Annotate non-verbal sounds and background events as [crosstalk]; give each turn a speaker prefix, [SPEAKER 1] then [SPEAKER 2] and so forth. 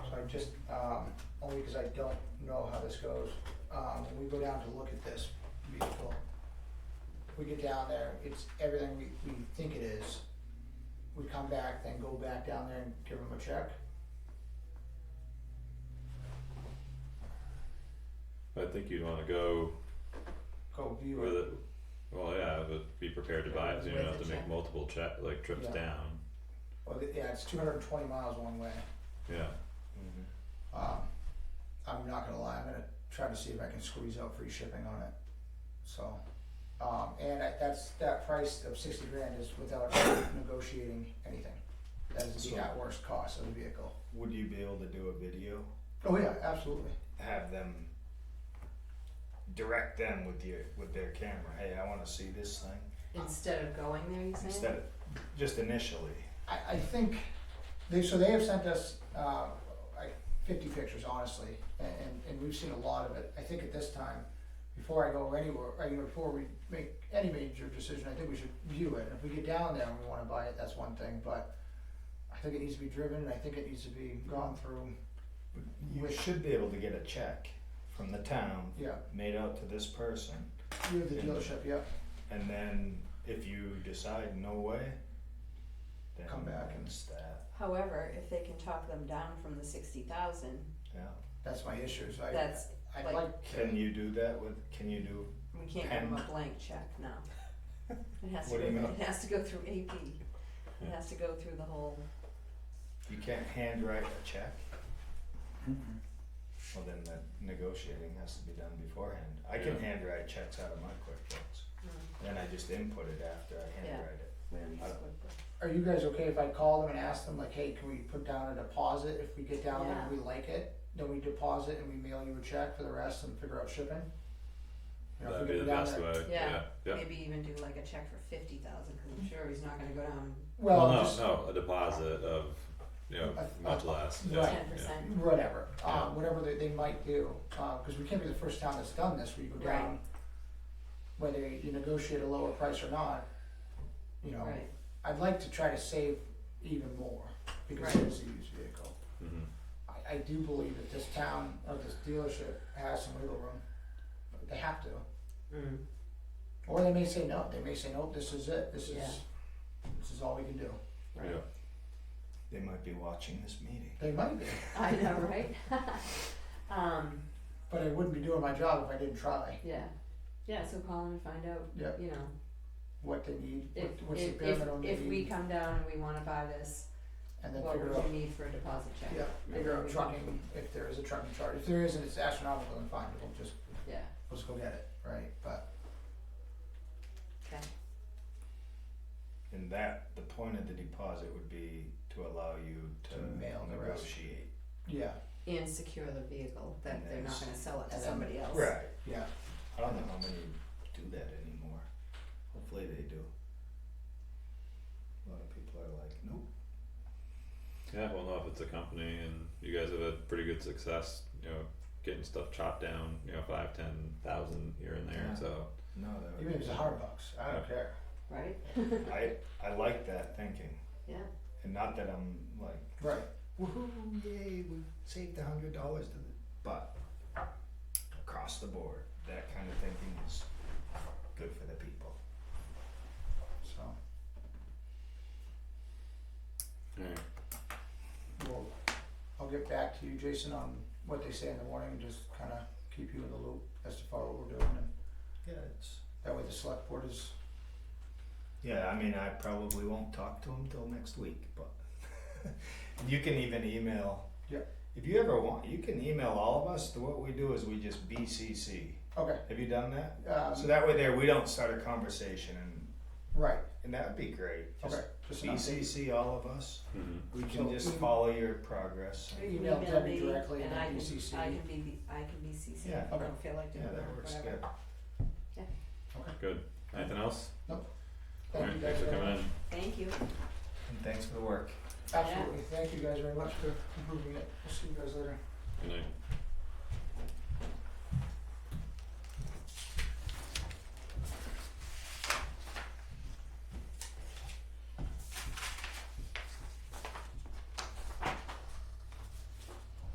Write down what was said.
[SPEAKER 1] just, um, only because I don't know how this goes. Um, when we go down to look at this vehicle, we get down there, it's everything we, we think it is. We come back, then go back down there and give them a check.
[SPEAKER 2] I think you'd wanna go
[SPEAKER 1] Go view
[SPEAKER 2] with
[SPEAKER 1] it.
[SPEAKER 2] it, well, yeah, but be prepared to buy it, so you don't
[SPEAKER 3] With
[SPEAKER 2] have to
[SPEAKER 3] the
[SPEAKER 2] make
[SPEAKER 3] check.
[SPEAKER 2] multiple check, like trips
[SPEAKER 1] Yeah.
[SPEAKER 2] down,
[SPEAKER 1] Well, th- yeah, it's two hundred and twenty miles one way.
[SPEAKER 2] yeah,
[SPEAKER 1] Um, I'm not gonna lie, I'm gonna try to see if I can squeeze out free shipping on it, so. Um, and I, that's, that price of sixty grand is without [coughs] negotiating anything. That is the
[SPEAKER 4] So-
[SPEAKER 1] at worst cost of the vehicle.
[SPEAKER 4] Would you be able to do a video?
[SPEAKER 1] Oh, yeah, absolutely.
[SPEAKER 4] Have them direct them with your with their camera. Hey, I want to see this thing
[SPEAKER 3] Instead of going there, you saying?
[SPEAKER 4] instead of just initially.
[SPEAKER 1] I, I think, they, so they have sent us, uh, like fifty pictures, honestly, and, and- and we've seen a lot of it. I think at this time, before I go anywhere, I mean, before we make any major decision, I think we should view it. And If we get down there and we wanna buy it, that's one thing, but I think it needs to be driven, and I think it needs to be gone through,
[SPEAKER 4] You should be able to get a check from the town
[SPEAKER 1] yeah,
[SPEAKER 4] made out to this person,
[SPEAKER 1] through the dealership, yeah.
[SPEAKER 4] and then if you decide no way, then
[SPEAKER 1] Come back and-
[SPEAKER 4] it's that.
[SPEAKER 3] However, if they can talk them down from the sixty thousand,
[SPEAKER 4] Yeah.
[SPEAKER 1] That's my issue, so I,
[SPEAKER 3] that's,
[SPEAKER 1] I'd
[SPEAKER 3] like-
[SPEAKER 1] like,
[SPEAKER 4] Can you do that with? Can you do?
[SPEAKER 3] we can't give them a blank check now. It has to,
[SPEAKER 4] What
[SPEAKER 3] go
[SPEAKER 4] do you mean?
[SPEAKER 3] it has to go through AP, it has to go through the whole,
[SPEAKER 4] You can't handwrite a check. Well, then the negotiating has to be done beforehand. I can
[SPEAKER 2] Yeah.
[SPEAKER 4] handwrite checks out of my QuickBooks.
[SPEAKER 3] mm,
[SPEAKER 4] Then I just input it after I
[SPEAKER 3] Yeah.
[SPEAKER 4] handwrite it.
[SPEAKER 3] where you
[SPEAKER 4] I-
[SPEAKER 3] split the-
[SPEAKER 1] are you guys okay if I call them and ask them like, hey, can we put down a deposit if we get down there and
[SPEAKER 3] Yeah.
[SPEAKER 1] we like it? Then we deposit and we mail you a check for the rest and figure out shipping? You know, if we
[SPEAKER 2] that'd be
[SPEAKER 1] get
[SPEAKER 2] the
[SPEAKER 1] down
[SPEAKER 2] best
[SPEAKER 1] there-
[SPEAKER 2] way, yeah,
[SPEAKER 3] Yeah.
[SPEAKER 2] yeah.
[SPEAKER 3] Maybe even do like a check for fifty thousand, cause I'm sure he's not gonna go down
[SPEAKER 1] Well,
[SPEAKER 2] no,
[SPEAKER 1] just
[SPEAKER 2] no, a deposit of, you know,
[SPEAKER 1] A- a-
[SPEAKER 2] much less, yeah,
[SPEAKER 1] Right.
[SPEAKER 3] ten percent.
[SPEAKER 1] whatever,
[SPEAKER 2] Yeah.
[SPEAKER 1] um, whatever they, they might do, uh, cause we can't be the first town that's done this, where you go down,
[SPEAKER 3] Right.
[SPEAKER 1] whether you negotiate a lower price or not, you know,
[SPEAKER 3] Right,
[SPEAKER 1] I'd like to try to save even more, because
[SPEAKER 3] Right.
[SPEAKER 1] it's a used vehicle.
[SPEAKER 2] yeah. Mhm.
[SPEAKER 1] I, I do believe that this town, or this dealership has some wiggle room, they have to,
[SPEAKER 3] mm,
[SPEAKER 1] or they may say no, they may say, nope, this is it, this is,
[SPEAKER 3] Yeah.
[SPEAKER 1] this is all we can do,
[SPEAKER 3] right,
[SPEAKER 2] Yeah.
[SPEAKER 4] They might be watching this meeting.
[SPEAKER 1] they might be,
[SPEAKER 3] I know, right? [laughs] Um,
[SPEAKER 1] but I wouldn't be doing my job if I didn't try,
[SPEAKER 3] yeah, yeah, so call him and find out,
[SPEAKER 1] Yeah.
[SPEAKER 3] you know,
[SPEAKER 1] what they need,
[SPEAKER 3] if,
[SPEAKER 1] what- what's the E?
[SPEAKER 3] if,
[SPEAKER 1] bare
[SPEAKER 3] if,
[SPEAKER 1] minimum they
[SPEAKER 3] if we
[SPEAKER 1] need,
[SPEAKER 3] come down and we wanna buy this,
[SPEAKER 1] and then
[SPEAKER 3] what
[SPEAKER 1] figure out.
[SPEAKER 3] would you need for a deposit check?
[SPEAKER 1] Yeah, figure out trucking, if there is a trucking charge, if there isn't, it's astronomical and fine, we'll just,
[SPEAKER 3] Yeah,
[SPEAKER 1] let's go get it, right, but,
[SPEAKER 3] okay,
[SPEAKER 4] And that, the point of the deposit would be to allow you to
[SPEAKER 1] To mail the rest.
[SPEAKER 4] negotiate.
[SPEAKER 1] yeah,
[SPEAKER 3] and secure the vehicle, that they're not gonna sell it to
[SPEAKER 1] And then-
[SPEAKER 3] somebody else.
[SPEAKER 4] Right.
[SPEAKER 1] yeah.
[SPEAKER 4] I don't know how many do that anymore. Hopefully they do. A lot of people are like, nope.
[SPEAKER 2] Yeah, well, no, if it's a company and you guys have had pretty good success, you know, getting stuff chopped down, you know, five, ten thousand here and there,
[SPEAKER 4] Yeah.
[SPEAKER 2] so.
[SPEAKER 4] No, that would
[SPEAKER 1] Even if
[SPEAKER 4] be-
[SPEAKER 1] it's a hard bucks, I don't care,
[SPEAKER 3] Right?
[SPEAKER 4] I, I like that thinking.
[SPEAKER 3] Yeah.
[SPEAKER 4] And not that I'm like,
[SPEAKER 1] right,
[SPEAKER 4] woohoo, yay, we saved a hundred dollars to the, but across the board, that kind of thinking is good for the people.
[SPEAKER 1] so,
[SPEAKER 2] Alright.
[SPEAKER 1] we'll, I'll get back to you, Jason, on what they say in the morning, and just kinda keep you in the loop as to follow what we're doing, and
[SPEAKER 4] Yeah, it's.
[SPEAKER 1] that way the select board is,
[SPEAKER 4] Yeah, I mean, I probably won't talk to him till next week, but [laughs] you can even email.
[SPEAKER 1] Yeah.
[SPEAKER 4] If you ever want, you can email all of us. What we do is we just BCC.
[SPEAKER 1] okay,
[SPEAKER 4] Have you done that? So
[SPEAKER 1] um,
[SPEAKER 4] that way, there we don't start a conversation, and
[SPEAKER 1] right,
[SPEAKER 4] and that would be great. Just
[SPEAKER 1] okay, just an update.
[SPEAKER 4] BCC all of us.
[SPEAKER 1] Mm-hmm.
[SPEAKER 2] Mhm.
[SPEAKER 4] We can
[SPEAKER 1] So-
[SPEAKER 4] just follow your progress.
[SPEAKER 1] Email
[SPEAKER 3] Email
[SPEAKER 1] Debbie
[SPEAKER 3] me,
[SPEAKER 1] directly and
[SPEAKER 3] I
[SPEAKER 1] then
[SPEAKER 3] can,
[SPEAKER 1] BCC.
[SPEAKER 3] I can be, the- I can be CC,
[SPEAKER 4] Yeah.
[SPEAKER 3] I don't feel like doing
[SPEAKER 4] Yeah,
[SPEAKER 3] that,
[SPEAKER 4] that works
[SPEAKER 3] whatever.
[SPEAKER 4] good.
[SPEAKER 2] Good. Anything else?
[SPEAKER 1] Thank
[SPEAKER 2] Alright,
[SPEAKER 1] you guys
[SPEAKER 2] Thanks for
[SPEAKER 1] very
[SPEAKER 2] coming
[SPEAKER 1] much,
[SPEAKER 2] in.
[SPEAKER 3] Thank you,
[SPEAKER 4] And thanks for the work.
[SPEAKER 1] absolutely, thank you guys very much for improving it, we'll see you guys later.
[SPEAKER 2] Good night.